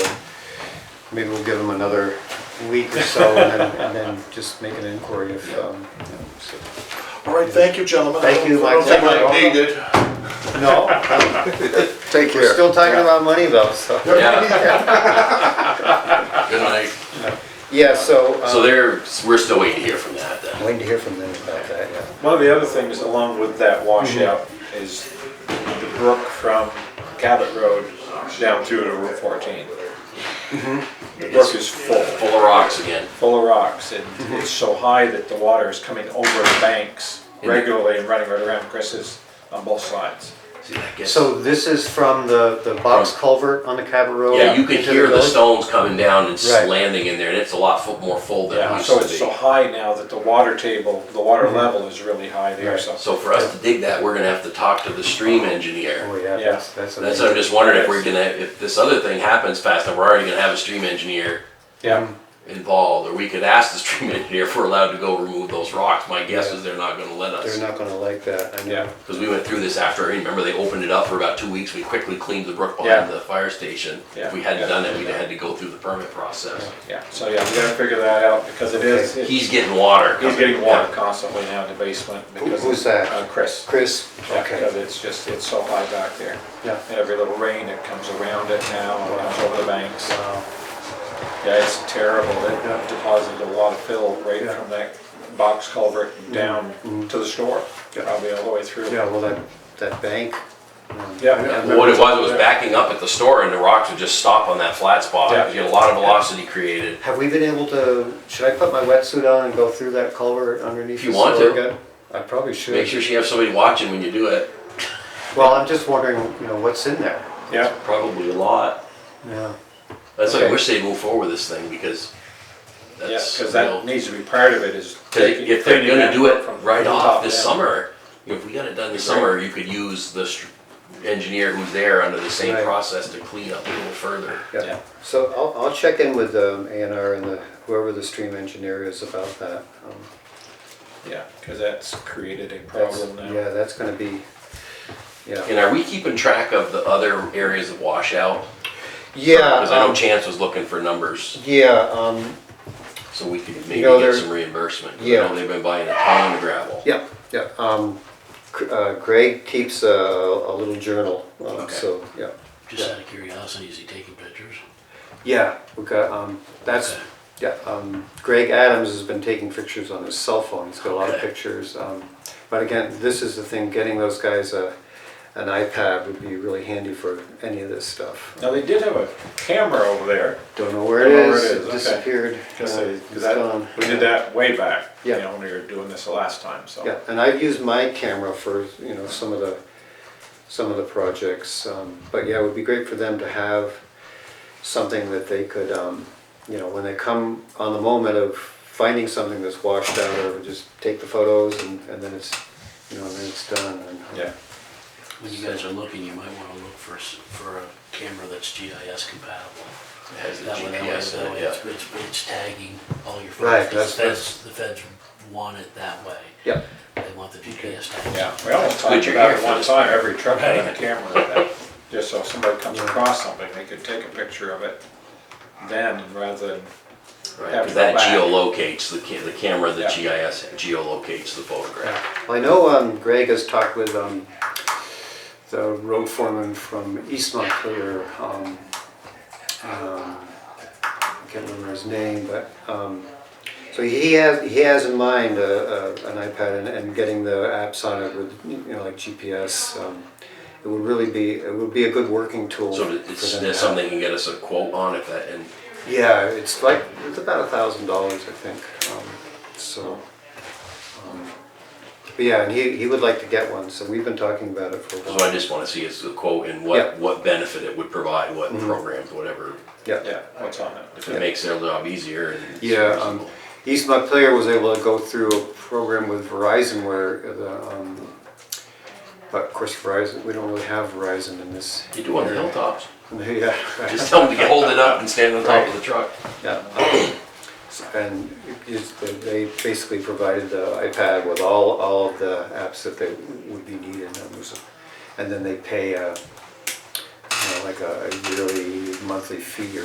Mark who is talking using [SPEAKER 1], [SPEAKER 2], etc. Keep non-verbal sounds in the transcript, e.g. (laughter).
[SPEAKER 1] Maybe we'll give them another week or so and then, and then just make an inquiry if, um, you know, so.
[SPEAKER 2] All right, thank you, gentlemen.
[SPEAKER 1] Thank you,
[SPEAKER 2] I don't think
[SPEAKER 1] Mike.
[SPEAKER 2] I need it.
[SPEAKER 1] No,
[SPEAKER 3] Take
[SPEAKER 1] we're
[SPEAKER 3] care.
[SPEAKER 1] still talking about money though, so.
[SPEAKER 4] Yeah. Good night.
[SPEAKER 1] (laughs) Yeah, so,
[SPEAKER 4] So
[SPEAKER 1] um,
[SPEAKER 4] there, we're still waiting to hear from that then.
[SPEAKER 1] waiting to hear from them about that, yeah.
[SPEAKER 5] One of the other things along with that washout is the brook from Cabot Road down through to Route 14. The brook is full,
[SPEAKER 4] Full of rocks again.
[SPEAKER 5] full of rocks, and it's so high that the water is coming over the banks regularly and running right around Chris's on both sides.
[SPEAKER 4] See, that gets-
[SPEAKER 1] So this is from the, the box culvert on the Cabot Road?
[SPEAKER 4] Yeah, you can
[SPEAKER 1] into
[SPEAKER 4] hear the
[SPEAKER 1] village?
[SPEAKER 4] stones coming down and
[SPEAKER 1] Right.
[SPEAKER 4] landing in there, and it's a lot fu- more full than it
[SPEAKER 5] Yeah,
[SPEAKER 4] used
[SPEAKER 5] so it's
[SPEAKER 4] to
[SPEAKER 5] so
[SPEAKER 4] be.
[SPEAKER 5] high now that the water table, the water level is really high there,
[SPEAKER 1] Right.
[SPEAKER 5] so.
[SPEAKER 4] So for us to dig that, we're gonna have to talk to the stream engineer.
[SPEAKER 1] Oh, yeah, that's, that's.
[SPEAKER 4] That's, I'm just wondering if we're gonna, if this other thing happens fast, enough, we're already gonna have a stream engineer
[SPEAKER 5] Yeah,
[SPEAKER 4] involved, or we could ask the stream (laughs) engineer if we're allowed to go remove those rocks. My guess
[SPEAKER 1] Yeah.
[SPEAKER 4] is they're not gonna let us.
[SPEAKER 1] They're not gonna like that, I know.
[SPEAKER 5] yeah,
[SPEAKER 4] Because we went through this after, remember they opened it up for about two weeks, we quickly cleaned the brook
[SPEAKER 5] Yeah.
[SPEAKER 4] behind the fire station. If
[SPEAKER 5] Yeah.
[SPEAKER 4] we hadn't
[SPEAKER 5] Yeah.
[SPEAKER 4] done it, we'd have had to go through the permit process.
[SPEAKER 5] yeah, so yeah, we gotta figure that out because it is, it's-
[SPEAKER 4] He's getting water.
[SPEAKER 5] he's
[SPEAKER 4] coming.
[SPEAKER 5] getting water constantly now in the basement because.
[SPEAKER 1] who's
[SPEAKER 5] of,
[SPEAKER 1] that?
[SPEAKER 5] uh, Chris.
[SPEAKER 1] Chris,
[SPEAKER 5] Yeah,
[SPEAKER 1] okay,
[SPEAKER 5] because it's just, it's so high back there.
[SPEAKER 1] yeah.
[SPEAKER 5] And every little rain that comes around it now, and comes over the banks.
[SPEAKER 1] Wow.
[SPEAKER 5] Yeah, it's terrible. It deposited a lot of fill right
[SPEAKER 1] Yeah. Mm-hmm.
[SPEAKER 5] from that box culvert down to the store,
[SPEAKER 1] Yeah.
[SPEAKER 5] probably all the way through.
[SPEAKER 1] Yeah, well, that, that bank. um,
[SPEAKER 5] Yeah.
[SPEAKER 1] I remember-
[SPEAKER 4] Well, What it was, it was backing up at the store and the rocks would just stop on that flat spot.
[SPEAKER 5] Yeah.
[SPEAKER 4] You get a lot of velocity created.
[SPEAKER 1] Have we been able to, should I put my wetsuit on and go through that culvert underneath?
[SPEAKER 4] If you
[SPEAKER 1] the
[SPEAKER 4] want
[SPEAKER 1] store
[SPEAKER 4] to.
[SPEAKER 1] again? I probably should.
[SPEAKER 4] Make sure you have somebody watching when you do it.
[SPEAKER 1] Well, I'm just wondering, you know, what's in there?
[SPEAKER 5] Yeah,
[SPEAKER 4] Probably a lot.
[SPEAKER 1] Yeah.
[SPEAKER 4] That's why I
[SPEAKER 1] Okay.
[SPEAKER 4] wish they'd move forward with this thing because
[SPEAKER 5] yeah,
[SPEAKER 4] that's.
[SPEAKER 5] because
[SPEAKER 4] you know,
[SPEAKER 5] that needs to be part of it is.
[SPEAKER 4] Cause
[SPEAKER 5] taking-
[SPEAKER 4] if they're
[SPEAKER 5] cleaning
[SPEAKER 4] gonna
[SPEAKER 5] that
[SPEAKER 4] do it
[SPEAKER 5] from
[SPEAKER 4] right
[SPEAKER 5] the
[SPEAKER 4] off
[SPEAKER 5] top
[SPEAKER 4] this
[SPEAKER 5] down.
[SPEAKER 4] summer, if we got it done this summer, you could use the str- engineer who's there under the same
[SPEAKER 1] Right.
[SPEAKER 4] process to clean up a little further.
[SPEAKER 1] Yeah.
[SPEAKER 5] Yeah.
[SPEAKER 1] So I'll, I'll check in with um, A and R and the, whoever the stream engineer is about that. Um,
[SPEAKER 5] Yeah, because that's created a
[SPEAKER 1] that's-
[SPEAKER 5] problem now.
[SPEAKER 1] Yeah, that's gonna be, yeah.
[SPEAKER 4] And are we keeping track of the other areas of washout?
[SPEAKER 1] Yeah,
[SPEAKER 4] Cause I know
[SPEAKER 1] um,
[SPEAKER 4] Chance was looking for numbers,
[SPEAKER 1] yeah, um,
[SPEAKER 4] so we could maybe
[SPEAKER 1] know,
[SPEAKER 4] get
[SPEAKER 1] there-
[SPEAKER 4] some reimbursement. 'cause I
[SPEAKER 1] Yeah.
[SPEAKER 4] know they've been buying a ton of gravel.
[SPEAKER 1] yeah, yeah. Um, Gr- uh, Greg keeps a, a little journal, um,
[SPEAKER 4] Okay.
[SPEAKER 1] so, yeah.
[SPEAKER 6] Just out of curiosity, is he taking pictures?
[SPEAKER 1] Yeah, we got, um, that's,
[SPEAKER 6] Okay.
[SPEAKER 1] yeah, um, Greg Adams has been taking pictures on his cell phone, he's got a lot of
[SPEAKER 4] Okay.
[SPEAKER 1] pictures, um, but again, this is the thing, getting those guys a, an iPad would be really handy for any of this stuff.
[SPEAKER 5] Now, they did have a camera over there.
[SPEAKER 1] Don't know where it
[SPEAKER 5] Don't know
[SPEAKER 1] is,
[SPEAKER 5] where it
[SPEAKER 1] it
[SPEAKER 5] is, okay.
[SPEAKER 1] disappeared.
[SPEAKER 5] Because
[SPEAKER 1] uh,
[SPEAKER 5] they,
[SPEAKER 1] it's
[SPEAKER 5] because I,
[SPEAKER 1] gone.
[SPEAKER 5] we did that way back, you
[SPEAKER 1] Yeah.
[SPEAKER 5] know, when we were doing this the last time, so.
[SPEAKER 1] Yeah, and I've used my camera for, you know, some of the, some of the projects, um, but yeah, it would be great for them to have something that they could, um, you know, when they come on the moment of finding something that's washed out, or just take the photos and, and then it's, you know, and then it's done. and-
[SPEAKER 5] Yeah,
[SPEAKER 6] When you guys are looking, you might wanna look for, s- for a camera that's GIS compatible.
[SPEAKER 4] It Has the
[SPEAKER 6] That way, that way,
[SPEAKER 4] GPS in
[SPEAKER 6] that way,
[SPEAKER 4] it, yeah.
[SPEAKER 6] it's, it's- it's tagging all your
[SPEAKER 1] Right,
[SPEAKER 6] photos. 'cause The
[SPEAKER 1] that's-
[SPEAKER 6] feds, the feds want it that way.
[SPEAKER 1] Yeah,
[SPEAKER 6] They want the GPS tagging.
[SPEAKER 5] yeah, we almost
[SPEAKER 4] good
[SPEAKER 5] talked
[SPEAKER 4] you're
[SPEAKER 5] about
[SPEAKER 4] here
[SPEAKER 5] it
[SPEAKER 4] for
[SPEAKER 5] one
[SPEAKER 4] this. (laughs)
[SPEAKER 5] time, every truck had a camera in it, just so if somebody comes across something, they could take a picture of it then, rather than,
[SPEAKER 4] Right,
[SPEAKER 5] Have
[SPEAKER 4] 'cause
[SPEAKER 5] to go
[SPEAKER 4] that
[SPEAKER 5] back.
[SPEAKER 4] geolocates, the ca- the camera, the
[SPEAKER 5] Yeah.
[SPEAKER 4] GIS geolocates the photograph.
[SPEAKER 1] well, I know, um, Greg has talked with, um, the road foreman from East Montclair, um, um, I can't remember his name, but, um, so he has, he has in mind a, a, an iPad and, and getting the apps on it with, you know, like GPS. Um, it would really be, it would be a good working tool.
[SPEAKER 4] So
[SPEAKER 1] for
[SPEAKER 4] it's,
[SPEAKER 1] them
[SPEAKER 4] there's
[SPEAKER 1] to have.
[SPEAKER 4] something you can get us a quote on if that, and
[SPEAKER 1] Yeah, it's like, it's about a thousand dollars, I think, um, so. um, But yeah, and he, he would like to get one, so we've been talking about it for a
[SPEAKER 4] So
[SPEAKER 1] while.
[SPEAKER 4] I just wanna see is the quote and
[SPEAKER 1] Yeah. Mm-hmm.
[SPEAKER 4] what, what benefit it would provide, what programs, whatever,
[SPEAKER 1] Yeah,
[SPEAKER 5] yeah, what's on it.
[SPEAKER 4] if it makes their job easier and. it's
[SPEAKER 1] yeah, um,
[SPEAKER 4] reasonable.
[SPEAKER 1] East Montclair was able to go through a program with Verizon where the, um, but of course Verizon, we don't really have Verizon in this. (laughs)
[SPEAKER 4] You do on the hilltops,
[SPEAKER 1] Yeah, right.
[SPEAKER 4] just tell them to hold it up and stand on top of the truck.
[SPEAKER 1] Yeah. And it's- they basically provided the iPad with all, all of the apps that they would be needed. and it was- And then they pay a, you know, like a yearly, monthly fee or